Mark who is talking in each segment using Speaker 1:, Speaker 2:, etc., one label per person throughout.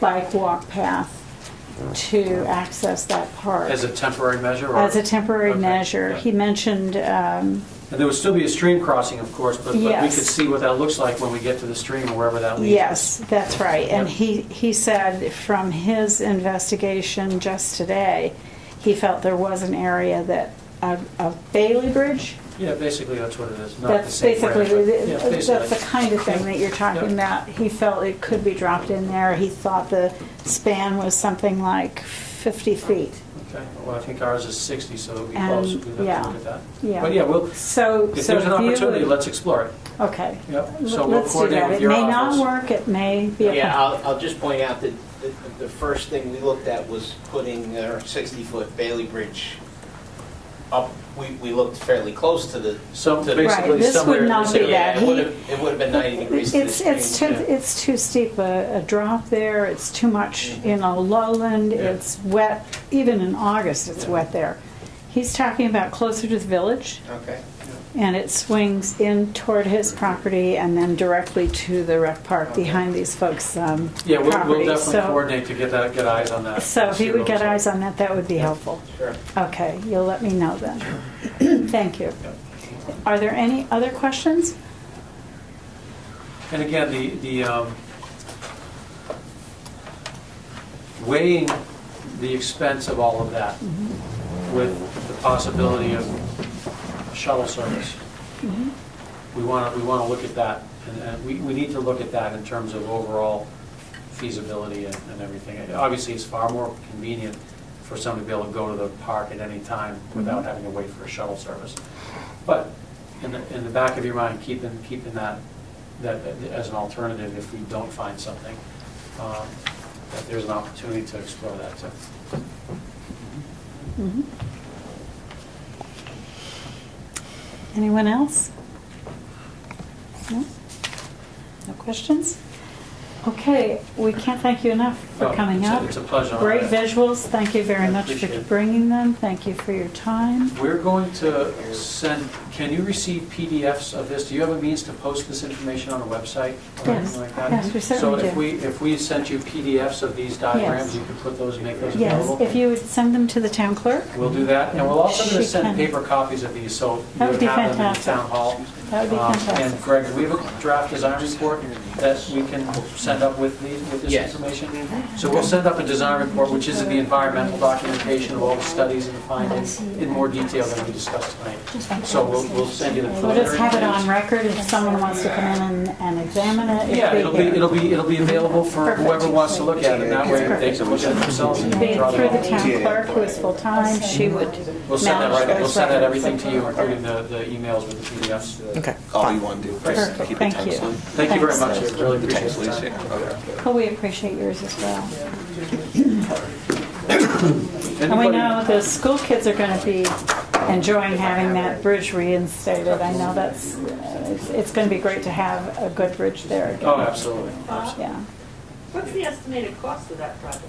Speaker 1: bike walk path to access that park.
Speaker 2: As a temporary measure? or-
Speaker 1: As a temporary
Speaker 2: Okay,
Speaker 1: measure.
Speaker 2: yeah.
Speaker 1: He mentioned, um,
Speaker 2: And there would still be a stream crossing, of course, but but we could
Speaker 1: Yes.
Speaker 2: see what that looks like when we get to the stream or wherever that leads.
Speaker 1: yes, that's right. And
Speaker 2: Yep.
Speaker 1: he, he said from his investigation just today, he felt there was an area that, of of Bailey Bridge,
Speaker 2: Yeah, basically, that's what it is. Not the
Speaker 1: That's
Speaker 2: same
Speaker 1: basically,
Speaker 2: brand, but- yeah,
Speaker 1: the-
Speaker 2: basically.
Speaker 1: that's the kind of thing that you're talking about. He felt it could be dropped in there. He thought the span was something like 50 feet.
Speaker 2: Okay, well, I think ours is 60, so it'll be
Speaker 1: And,
Speaker 2: close. We'd
Speaker 1: yeah,
Speaker 2: have to look at that.
Speaker 1: yeah.
Speaker 2: But yeah, well,
Speaker 1: So,
Speaker 2: if
Speaker 1: so
Speaker 2: there's an
Speaker 1: if you
Speaker 2: opportunity,
Speaker 1: would-
Speaker 2: let's explore it.
Speaker 1: Okay.
Speaker 2: Yep, so
Speaker 1: L-
Speaker 2: we'll
Speaker 1: Let's do
Speaker 2: coordinate
Speaker 1: that.
Speaker 2: with
Speaker 1: It
Speaker 2: your
Speaker 1: may not
Speaker 2: office.
Speaker 1: work, it may be. a-
Speaker 3: Yeah, I'll, I'll just point out that the, the first thing we looked at was putting our 60-foot Bailey Bridge up. We, we looked fairly close to the,
Speaker 2: So
Speaker 3: Right,
Speaker 2: basically,
Speaker 1: this would
Speaker 2: somewhere in
Speaker 1: not
Speaker 2: this
Speaker 1: be
Speaker 2: area.
Speaker 1: bad.
Speaker 3: yeah,
Speaker 1: He-
Speaker 3: it would have, it would have been 90 degrees to the
Speaker 1: It's,
Speaker 3: stream.
Speaker 1: it's too,
Speaker 2: yeah.
Speaker 1: it's too steep a, a drop there, it's too much, you know, lowland,
Speaker 2: Mm-hmm. Yeah.
Speaker 1: it's wet, even in August, it's wet there. He's talking about closer to the village.
Speaker 3: Okay.
Speaker 1: And it swings in toward his property and then directly to the rec park behind these folks' um, property.
Speaker 2: Yeah, we'll- we'll definitely
Speaker 1: So-
Speaker 2: coordinate to get that, get eyes on that.
Speaker 1: So if
Speaker 2: see
Speaker 1: you
Speaker 2: what
Speaker 1: would
Speaker 2: it
Speaker 1: get
Speaker 2: looks like.
Speaker 1: eyes on that, that would be helpful.
Speaker 3: Sure.
Speaker 1: Okay, you'll let me know then. Thank you. Are there any other questions?
Speaker 2: And again, the, the um, weighing the expense of all of that with the possibility of shuttle service.
Speaker 1: Mm-hmm.
Speaker 2: We want to, we want to look at that, and- and we, we need to look at that in terms of overall feasibility and and everything. And Obviously, it's far more convenient for someone to be able to go to the park at any time
Speaker 1: Mm-hmm.
Speaker 2: without having to wait for a shuttle service. But in the, in the back of your mind, keeping, keeping that, that as an alternative if we don't find something, um, that there's an opportunity to explore that too.
Speaker 1: Mhm. Anyone else? No? No questions? Okay, we can't thank you enough for
Speaker 2: Oh,
Speaker 1: coming
Speaker 2: it's a-
Speaker 1: out.
Speaker 2: It's a pleasure.
Speaker 1: Great visuals, thank you very
Speaker 2: I
Speaker 1: much for
Speaker 2: appreciate it.
Speaker 1: bringing them, thank you for your time.
Speaker 2: We're going to send, can you receive PDFs of this? Do you have a means to post this information on a website or
Speaker 1: Yes,
Speaker 2: anything like that?
Speaker 1: yes, we certainly
Speaker 2: So if
Speaker 1: do.
Speaker 2: we, if we sent you PDFs of these
Speaker 1: Yes.
Speaker 2: diagrams, you could put those, and make those
Speaker 1: Yes, if
Speaker 2: available?
Speaker 1: you would send them to the town clerk,
Speaker 2: We'll do that, and we'll also gonna
Speaker 1: She can.
Speaker 2: send paper copies of these, so you
Speaker 1: That
Speaker 2: have
Speaker 1: would be
Speaker 2: them in the
Speaker 1: fantastic.
Speaker 2: town hall.
Speaker 1: that would be
Speaker 2: Um,
Speaker 1: fantastic.
Speaker 2: And Greg, we have a draft design report that we can send up with these, with this
Speaker 3: Yes.
Speaker 2: information. So we'll send up a design report, which is the environmental documentation of all the studies and the findings in more detail than we discussed tonight. So we'll, we'll send you the
Speaker 1: We'll just
Speaker 2: preliminary.
Speaker 1: have it on
Speaker 2: plans.
Speaker 1: record if someone wants to come in and- and examine it.
Speaker 2: Yeah, it'll be, it'll be, it'll be available for
Speaker 1: Perfect.
Speaker 2: whoever wants to look at it. That way they can look at it themselves and
Speaker 1: It'd be
Speaker 2: draw
Speaker 1: Through the
Speaker 2: their own.
Speaker 1: town clerk, who is full-time, she would
Speaker 2: We'll send that
Speaker 1: manage
Speaker 2: right, we'll
Speaker 1: those
Speaker 2: send that
Speaker 1: records.
Speaker 2: everything to you, including the, the emails with the PDFs.
Speaker 4: Okay.
Speaker 5: All Oh, you want to do.
Speaker 1: Perfect.
Speaker 5: Keep it
Speaker 1: Thank
Speaker 5: tight,
Speaker 1: you.
Speaker 5: so-
Speaker 2: Thank you very much,
Speaker 1: Thanks.
Speaker 2: I really
Speaker 5: The
Speaker 2: appreciate
Speaker 5: tax
Speaker 2: the
Speaker 5: lease,
Speaker 2: time.
Speaker 5: yeah, okay.
Speaker 1: Well, we appreciate yours as well. And we
Speaker 2: Anybody-
Speaker 1: know the school kids are going to be enjoying having that bridge reinstated. I know that's, uh, it's- it's going to be great to have a good bridge there again.
Speaker 2: Oh, absolutely, absolutely.
Speaker 1: Yeah.
Speaker 6: What's the estimated cost of that project?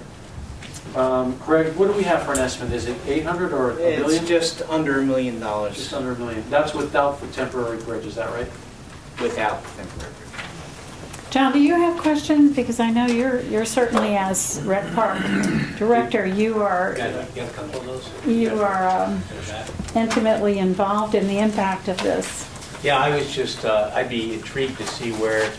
Speaker 2: Um, Greg, what do we have for an estimate? Is it 800 or a
Speaker 3: It's
Speaker 2: million?
Speaker 3: just under a million
Speaker 2: Just
Speaker 3: dollars
Speaker 2: under a million. That's without the temporary bridge, is that right?
Speaker 3: without temporary bridge.
Speaker 1: John, do you have questions? Because I know you're, you're certainly as rec park director, you are,
Speaker 3: a couple of those?
Speaker 1: you are um, intimately involved in the impact of this.
Speaker 7: Yeah, I was just, uh, I'd be intrigued to see where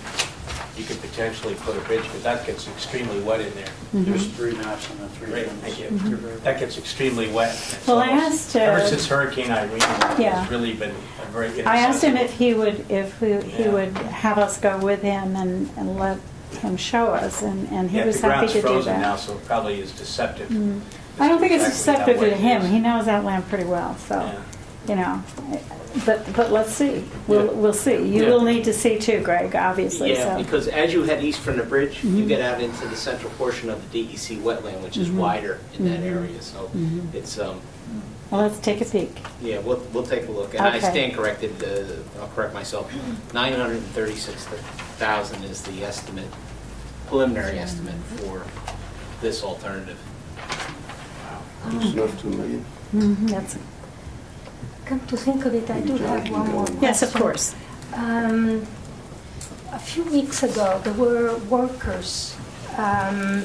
Speaker 7: you could potentially put a bridge, because that gets extremely wet in there.
Speaker 2: There's three maps and the three.
Speaker 7: Great,
Speaker 2: things.
Speaker 7: thank you. That gets extremely wet. It's
Speaker 1: Well, I
Speaker 7: almost-
Speaker 1: asked, uh,
Speaker 7: Ever since Hurricane Irene,
Speaker 1: Yeah.
Speaker 7: it's really been a very.
Speaker 1: I asked him
Speaker 7: inaccessible-
Speaker 1: if he would, if we- he
Speaker 7: Yeah.
Speaker 1: would have us go with him and, and let him show us, and, and he
Speaker 7: Yeah,
Speaker 1: was happy to
Speaker 7: The ground's
Speaker 1: do
Speaker 7: frozen now,
Speaker 1: that.
Speaker 7: so it probably is deceptive.
Speaker 1: Mm. I don't think it's
Speaker 7: Exactly
Speaker 1: deceptive
Speaker 7: how
Speaker 1: to
Speaker 7: wet it
Speaker 1: him,
Speaker 7: is.
Speaker 1: he knows that land pretty well, so,
Speaker 7: Yeah.
Speaker 1: you know, but, but let's see, we'll,
Speaker 2: Yeah.
Speaker 1: we'll see. You
Speaker 2: Yeah.
Speaker 1: will need to see too, Greg, obviously,
Speaker 3: Yeah,
Speaker 1: so. Mm-hmm.
Speaker 3: because as you head east from the bridge, you get out into the central portion of the DEC wetland, which is wider in that
Speaker 1: Mm-hmm.
Speaker 3: area, so it's, um,
Speaker 1: Well, let's take a peek.
Speaker 3: Yeah, we'll, we'll take a look, and I
Speaker 1: Okay.
Speaker 3: stand corrected, uh, I'll correct myself, 936,000 is the estimate, preliminary estimate for this alternative.
Speaker 5: Just enough to make it-
Speaker 1: That's-
Speaker 8: Come to think of it, I do have one more question.
Speaker 1: Yes, of course.
Speaker 8: Um, A few weeks ago, there were workers um,